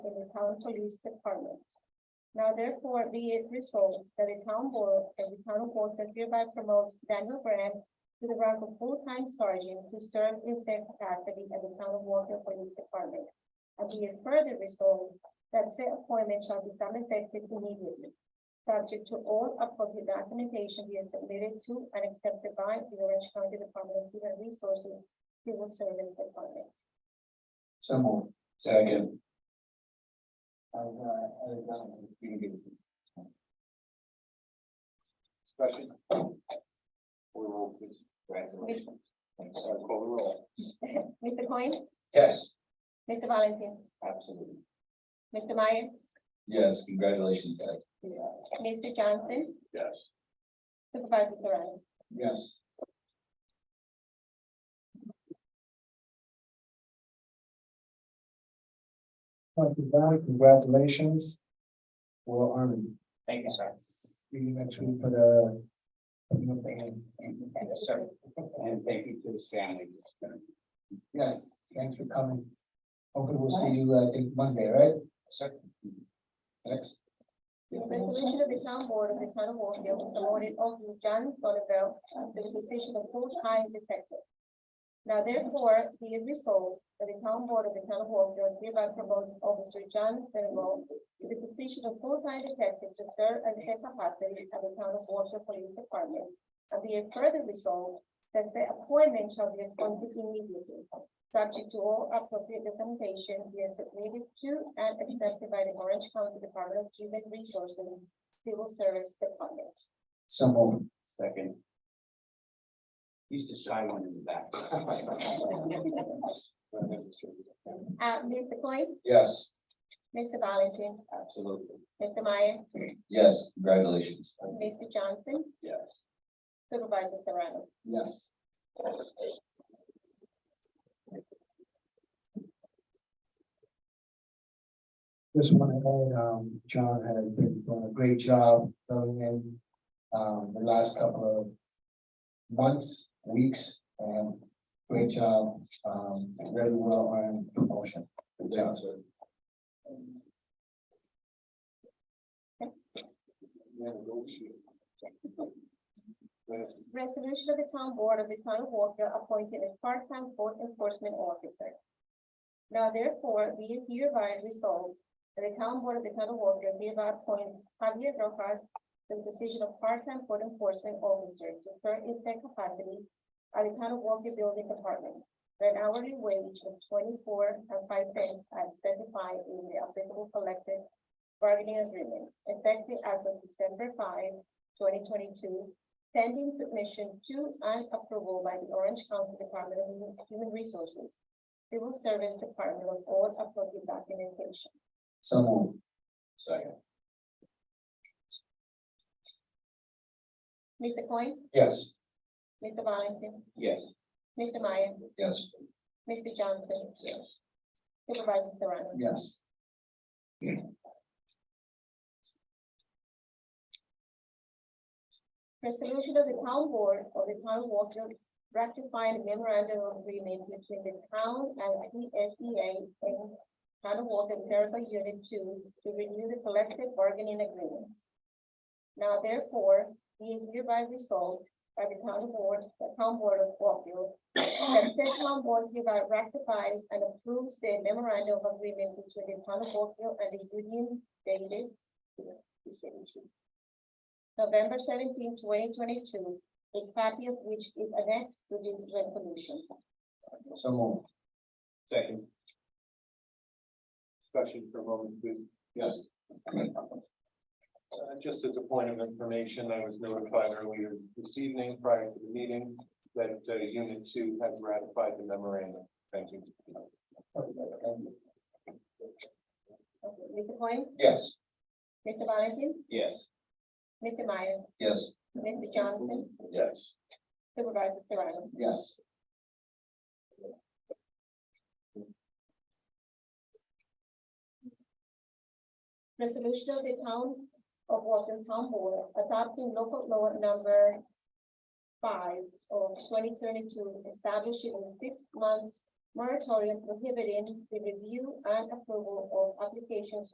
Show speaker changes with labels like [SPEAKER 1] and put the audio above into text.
[SPEAKER 1] the town police department. Now therefore be it resolved that the town board and the town of Guelph hereby promotes Daniel Brand to the rank of full-time sergeant to serve in their capacity at the town of Guelph Police Department. And be it further resolved that said appointment shall become effective immediately, subject to all appropriate documentation being submitted to and accepted by the Orange County Department of Human Resources Civil Service Department.
[SPEAKER 2] So moved. Second. uh, Discussion? We will, please. Congratulations. Thanks. I'll call the roll.
[SPEAKER 1] Mr. Cohen,
[SPEAKER 2] Yes.
[SPEAKER 1] Mr. Valentin,
[SPEAKER 2] Absolutely.
[SPEAKER 1] Mr. Meyer,
[SPEAKER 2] Yes, congratulations, guys.
[SPEAKER 1] Mr. Johnson,
[SPEAKER 2] Yes.
[SPEAKER 1] Supervisor Serrano.
[SPEAKER 2] Yes.
[SPEAKER 3] Thank you, Doc. Congratulations. Well, Army,
[SPEAKER 2] Thank you, sir.
[SPEAKER 3] you next week for the.
[SPEAKER 2] Yes, sir. And thank you to his family.
[SPEAKER 3] Yes, thanks for coming. Hopefully we'll see you, uh, I think Monday, right?
[SPEAKER 2] Sir. Next.
[SPEAKER 1] The resolution of the town board of the town of Warfield promoted Officer John Sonnenfeld to the position of full-time detective. Now therefore, be it resolved that the town board of the town of Warfield hereby promotes Officer John Sonnenfeld to the position of full-time detective to serve as head capacity of the town of Warfield Police Department. And be it further resolved that the appointment shall be appointed immediately, subject to all appropriate documentation being submitted to and accepted by the Orange County Department of Human Resources Civil Service Department.
[SPEAKER 3] So moved.
[SPEAKER 2] Second. He's the shy one in the back.
[SPEAKER 1] Uh, Mr. Coyne,
[SPEAKER 2] Yes.
[SPEAKER 1] Mr. Valentin,
[SPEAKER 2] Absolutely.
[SPEAKER 1] Mr. Meyer,
[SPEAKER 2] Yes, congratulations.
[SPEAKER 1] Mr. Johnson,
[SPEAKER 2] Yes.
[SPEAKER 1] Supervisor Serrano.
[SPEAKER 3] Yes. Just want to add, um, John has been doing a great job filling in, um, the last couple of months, weeks, and great job, um, very well earned promotion. Good job, sir.
[SPEAKER 1] Resolution of the town board of the town of Walker appointing a part-time code enforcement officer. Now therefore, be it hereby resolved that the town board of the town of Walker hereby appoints Javier Rojas to the position of part-time code enforcement officer to serve in that capacity at the town of Walker Building Department for an hourly wage of twenty-four and five cents as specified in the applicable collective bargaining agreement effective as of December 5, 2022 pending submission to and approval by the Orange County Department of Human- Human Resources, Civil Service Department of all appropriate documentation.
[SPEAKER 3] So moved.
[SPEAKER 2] Second.
[SPEAKER 1] Mr. Coyne,
[SPEAKER 3] Yes.
[SPEAKER 1] Mr. Valentin,
[SPEAKER 2] Yes.
[SPEAKER 1] Mr. Meyer,
[SPEAKER 2] Yes.
[SPEAKER 1] Mr. Johnson,
[SPEAKER 2] Yes.
[SPEAKER 1] Supervisor Serrano.
[SPEAKER 3] Yes.
[SPEAKER 1] Resolution of the town board of the town of Walkfield ratifying memorandum of agreement between the town and P S E A and town of Walkfield Territorial Unit Two to renew the collective bargaining agreement. Now therefore, be it hereby resolved by the town board, the town board of Walkfield, that said town board hereby ratifies and approves the memorandum of agreement between the town of Walkfield and the union dated November 17, 2022, a copy of which is annexed to this resolution.
[SPEAKER 3] So moved.
[SPEAKER 2] Second. Discussion for a moment, please. Yes.
[SPEAKER 4] Uh, Just as a point of information, I was notified earlier this evening prior to the meeting that uh, Unit Two has ratified the memorandum. Thank you.
[SPEAKER 1] Okay, Mr. Cohen,
[SPEAKER 2] Yes.
[SPEAKER 1] Mr. Valentin,
[SPEAKER 2] Yes.
[SPEAKER 1] Mr. Meyer,
[SPEAKER 2] Yes.
[SPEAKER 1] Mr. Johnson,
[SPEAKER 2] Yes.
[SPEAKER 1] Supervisor Serrano.
[SPEAKER 3] Yes.
[SPEAKER 1] Resolution of the town of Walton Town Board adopting local law number five of twenty twenty-two, establishing a six-month moratorium prohibiting the review and approval of applications